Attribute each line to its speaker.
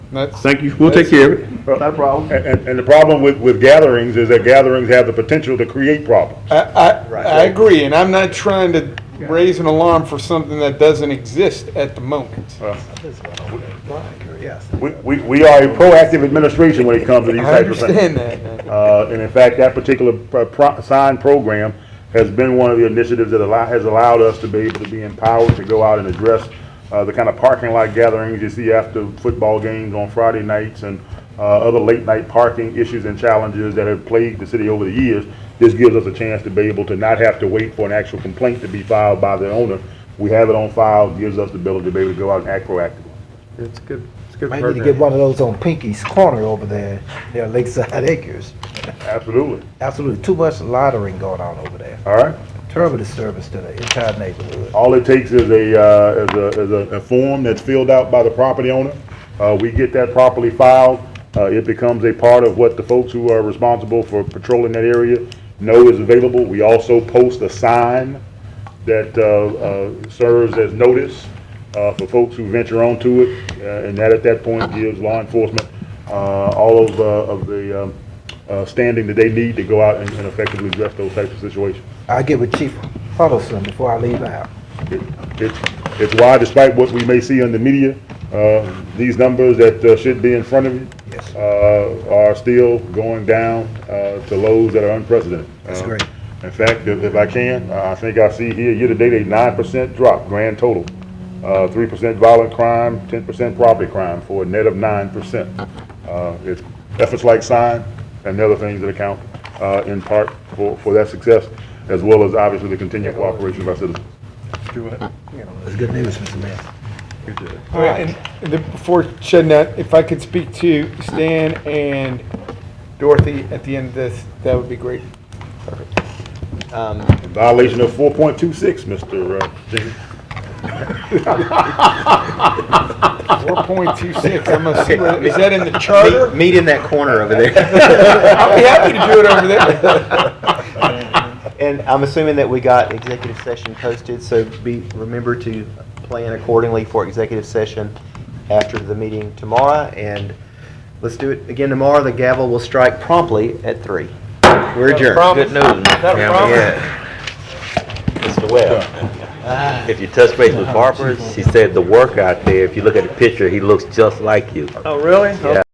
Speaker 1: That's,
Speaker 2: Thank you, we'll take care of it.
Speaker 3: Not a problem. And, and- and the problem with, with gatherings is that gatherings have the potential to create problems.
Speaker 1: I, I, I agree, and I'm not trying to raise an alarm for something that doesn't exist at the moment.
Speaker 3: We, we, we are a proactive administration when it comes to these
Speaker 1: I
Speaker 3: types of
Speaker 1: understand
Speaker 3: things.
Speaker 1: that.
Speaker 3: Uh, and in fact, that particular pro- pro- sign program has been one of the initiatives that allow, has allowed us to be able to be empowered to go out and address, uh, the kind of parking lot gatherings you see after football games on Friday nights and, uh, other late night parking issues and challenges that have plagued the city over the years. This gives us a chance to be able to not have to wait for an actual complaint to be filed by the owner. We have it on file, gives us the ability to be able to go out and act proactively.
Speaker 4: It's good, it's good
Speaker 5: Might need to get
Speaker 4: program.
Speaker 5: one of those on Pinky's Corner over there, near Lakeside Acres.
Speaker 3: Absolutely.
Speaker 5: Absolutely, too much loitering going on over there.
Speaker 3: All right?
Speaker 5: Terrible disturbance to the entire neighborhood.
Speaker 3: All it takes is a, uh, is a, is a- a form that's filled out by the property owner. Uh, we get that properly filed. Uh, it becomes a part of what the folks who are responsible for patrolling that area know is available. We also post a sign that, uh, uh, serves as notice, uh, for folks who venture onto it. Uh, and that at that point gives law enforcement, uh, all of, uh, of the, um, uh, standing that they need to go out and and effectively address those types of situations.
Speaker 5: I'll get with Chief Huddleston before I leave out.
Speaker 3: It- It's, it's why despite what we may see on the media, uh, these numbers that uh, should be in front of you
Speaker 5: Yes.
Speaker 3: uh, are still going down uh, to lows that are unprecedented.
Speaker 5: That's
Speaker 3: Uh,
Speaker 5: great.
Speaker 3: In fact, if if I can, uh, I think I see here, year-to-date, a nine percent drop, grand total. Uh, Three percent violent crime, ten percent property crime, for a net of nine percent. Uh, It's efforts like sign and the other things that account uh, in part for, for that success, as well as obviously the continued cooperation of our citizens.
Speaker 5: That's good news, Mr. Mayor.
Speaker 1: All right, and the, before shutting that, if I could speak to Stan and Dorothy at the end of this, that would be great.
Speaker 3: Violation of four point two six, Mr. uh, Jenkins.
Speaker 1: Four point two six, I'm gonna see, what- is that in the charter?
Speaker 4: Meet in that corner over there.
Speaker 1: I'll be happy to do it over there.
Speaker 4: And I'm assuming that we got executive session posted, so be, remember to plan accordingly for executive session after the meeting tomorrow, and let's do it again tomorrow. The gavel will strike promptly at three. We're adjourned.
Speaker 6: Good news. Yeah. Mr. Webb, if you touch base with Harper, she said the work out there, if you look at the picture, he looks just like you.
Speaker 4: Oh, really?